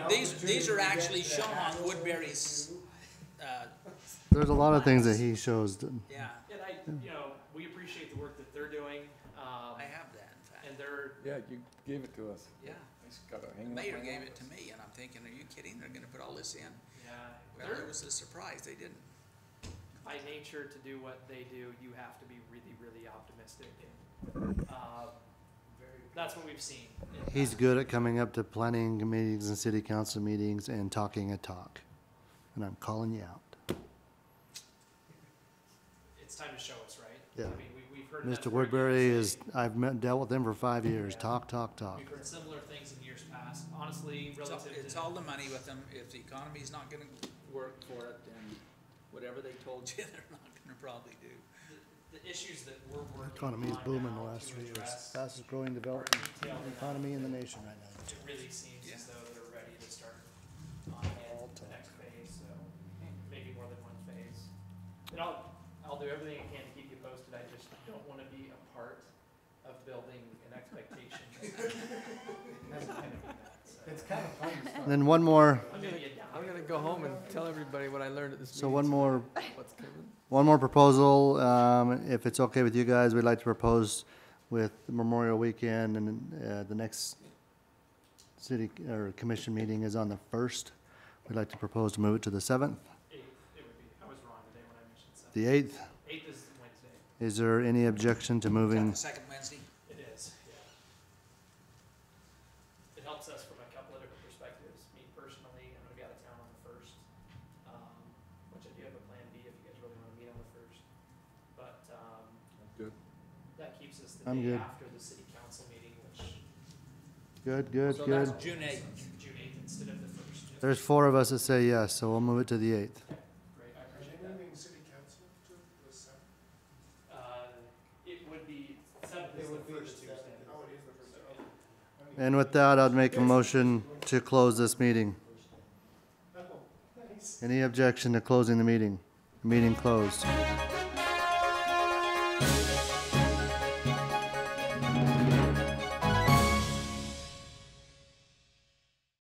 These, these are actually shown on Woodbury's, uh, There's a lot of things that he shows. that- yeah, And I, you know, we appreciate the work that they're doing, um, I have that, in fact. and they're, Yeah, you gave it to us. Yeah, I just gotta the hang it up mayor on gave all it to this. me, and I'm thinking, are you kidding? They're gonna put all this in? yeah, Well, it uh, they're, was a surprise, they didn't. by nature, to do what they do, you have to be really, really optimistic. and, um, That's what we've seen. Uh, in- He's good at coming up to planning meetings and city council meetings and talking a talk. And I'm calling you out. It's time to show us, right? Yeah. I mean, we, we've heard. that Mr. throughout Woodbury the is, city. I've met, dealt with him for five years. Talk, talk, talk. We've heard similar things in years past, honestly, It's all- relative to. It's all the money with them. If the economy's not gonna work for it, then whatever they told you, they're not gonna probably do. the- The issues that we're working on now. Economy is booming the last to three years. address Fastest growing are development detailed enough economy in the nation right now. it really seems Yeah. as though they're ready to start on again All to time. the next phase, so maybe more than one phase. And I'll, I'll do everything I can to keep you posted, I just don't wanna be a part of building an expectation. That's kind of that, so. kind of fun to And Then one more, I'm gonna be a down. I'm gonna go home and tell everybody what I learned at this meeting. so one more What's coming? One more proposal, um, if it's okay with you guys, we'd like to propose with Memorial Weekend and, uh, the next city, or commission meeting is on the first. We'd like to propose to move it to the seventh, Eighth, it would be, I was wrong today when I mentioned seven. the eighth. Eighth is Wednesday, Is there any objection to Is that moving? the second Wednesday? it is, yeah. It helps us from a couple of different perspectives, me personally, I'm gonna be out of town on the first, um, which I do have a plan B if you guys really wanna meet on the first. But, um, Good. that keeps us the I'm day good. after the city council meeting, which Good, good, So good. that's June eighth. June eighth instead of the first. There's four of us that say yes, so we'll move it to the eighth. Great, I appreciate that. Uh, it would be seventh is the first Tuesday. Oh, it is the first. And with that, I'd make a motion to close this meeting. Oh, Any objection to closing the meeting? Meeting closed.